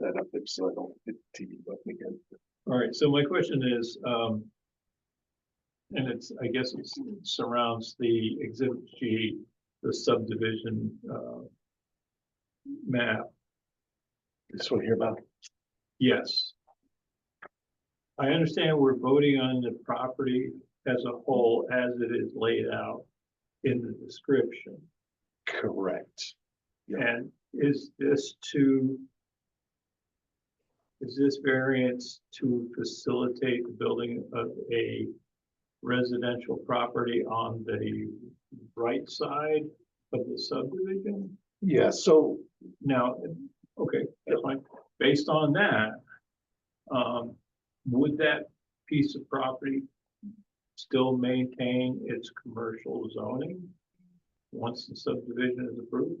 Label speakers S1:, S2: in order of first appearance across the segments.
S1: that up there so I don't hit the TV button again.
S2: All right, so my question is, um. And it's, I guess it surrounds the exhibit G, the subdivision, uh. Map,
S1: This one here about,
S2: yes. I understand we're voting on the property as a whole as it is laid out in the description.
S1: correct. Yeah.
S2: And is this to? Is this variance to facilitate the building of a residential property on the right side of the subdivision?
S1: Yeah, so
S2: Now, okay, that's fine. Based on that, um, would that piece of property still maintain its commercial zoning once the subdivision is approved?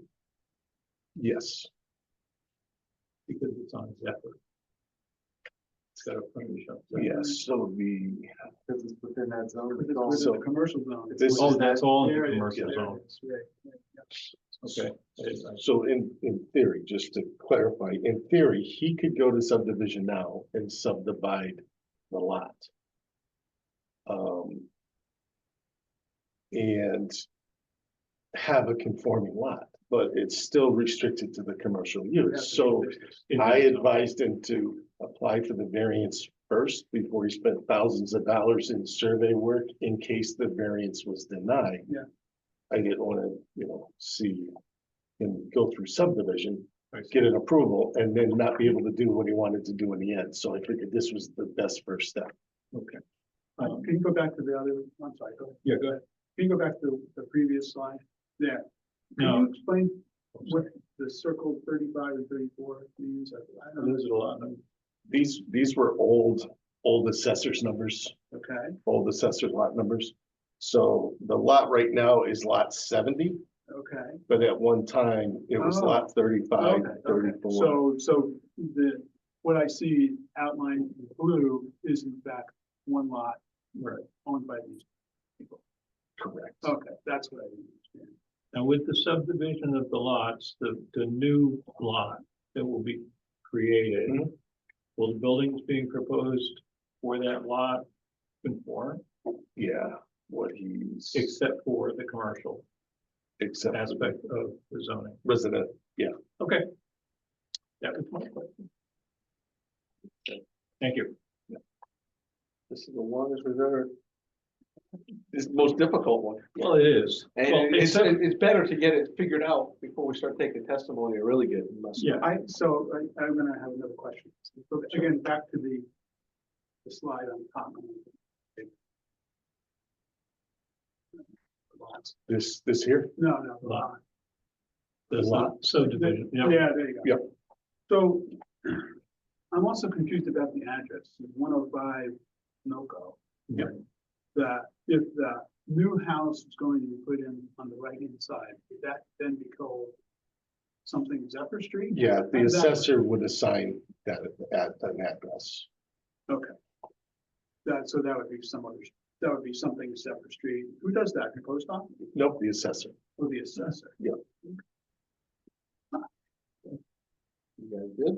S1: yes,
S2: because it's on Zephyr. It's got a frontage up there.
S1: yes, so the,
S3: Because it's within that zone.
S1: it's also-
S3: commercial zone.
S1: This
S2: Oh, that's all in the
S3: There it is,
S2: commercial
S3: there it
S2: zone.
S3: is, right, right, yeah.
S2: Okay. I didn't- I-
S1: so in, in theory, just to clarify, in theory, he could go to subdivision now and subdivide the lot. Um. And have a conforming lot, but it's still restricted to the commercial use, so.
S2: in
S1: I
S2: that zone.
S1: advised him to apply for the variance first before he spent thousands of dollars in survey work in case the variance was denied.
S3: Yeah.
S1: I didn't wanna, you know, see him go through subdivision,
S2: I see.
S1: get an approval, and then not be able to do what he wanted to do in the end, so I figured this was the best first step.
S2: Okay.
S3: Uh,
S2: Um,
S3: Can you go back to the other, I'm sorry, go ahead.
S2: Yeah, go ahead.
S3: Can you go back to the previous slide there? Can
S2: No.
S3: you explain what the circle thirty-five and thirty-four means? I- I don't know.
S2: There's a lot of,
S1: These, these were old, old assessors numbers,
S3: Okay,
S1: old assessor lot numbers. So the lot right now is lot seventy.
S3: okay.
S1: But at one time, it was
S3: Oh.
S1: lot thirty-five,
S3: Okay, okay.
S1: thirty-four.
S3: So, so the, what I see outlined in blue is in fact one lot
S2: right.
S3: owned by these.
S1: Correct.
S3: Okay, that's what I didn't understand.
S2: Now with the subdivision of the lots, the, the new lot that will be created,
S1: Mhm.
S2: will the buildings being proposed for that lot conform,
S1: Yeah, what he's,
S2: except for the commercial
S1: except
S2: aspect of the zoning?
S1: resident,
S2: Okay. That was my question. Thank you.
S1: this is the longest we've ever. It's the most difficult one.
S2: Well, it is. Well,
S4: And it's,
S2: except-
S4: it's better to get it figured out before we start taking testimony and really get messed
S2: Yeah,
S3: I, so I, I'm gonna have another question. So Again, back to the, the slide on top. Lots.
S1: This, this here,
S3: No, no, the
S2: Lot.
S3: lot.
S2: that's not subdivision,
S3: Yeah,
S2: yeah,
S3: there you go.
S1: Yep.
S3: So I'm also confused about the address, one oh five Noco.
S2: Yep.
S3: That if the new house is going to be put in on the right hand side, would that then be called something Zephyr Street?
S1: yeah, the
S3: Exactly.
S1: assessor would assign that at an address.
S3: That, so that would be some other, that would be something Zephyr Street. Who does that? The post office
S1: Nope, the assessor.
S3: or the assessor?
S4: You guys did?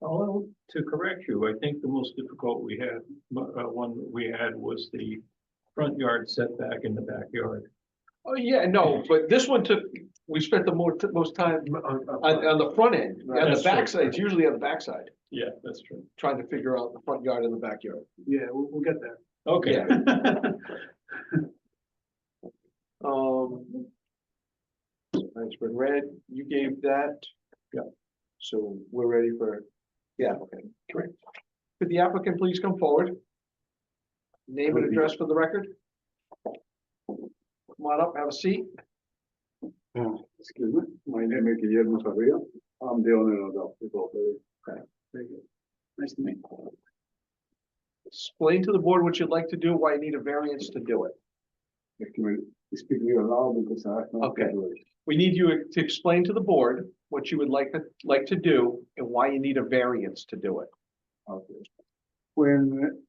S2: although, to correct you, I think the most difficult we had, uh, one that we had was the front yard setback in the backyard.
S4: Oh, yeah, no, but this one took, we spent the more, most time on, on the front end. On
S2: That's
S4: the
S2: true.
S4: backside, it's usually on the backside,
S2: Yeah, that's true.
S4: trying to figure out the front yard and the backyard.
S3: Yeah, we'll, we'll get there.
S2: Okay,
S4: Um. That's been read. You gave that.
S2: Yeah.
S4: So we're ready for, yeah, okay.
S1: Correct.
S4: Could the applicant please come forward? Name and
S1: Would be-
S4: address for the record? Come on up, have a seat.
S5: Uh, Excuse me, my name is Guillermo Sarria. I'm the owner of the property.
S3: Very good. Nice to meet you.
S4: Explain to the board what you'd like to do, why you need a variance to do it.
S5: Excuse me, speak real loud because I. cannot
S4: Okay.
S5: hear you.
S4: We need you to explain to the board what you would like, to like to do and why you need a variance to do it.
S5: Okay. When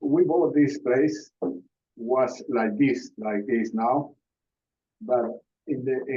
S5: we bought this place, was like this, like this now. But in the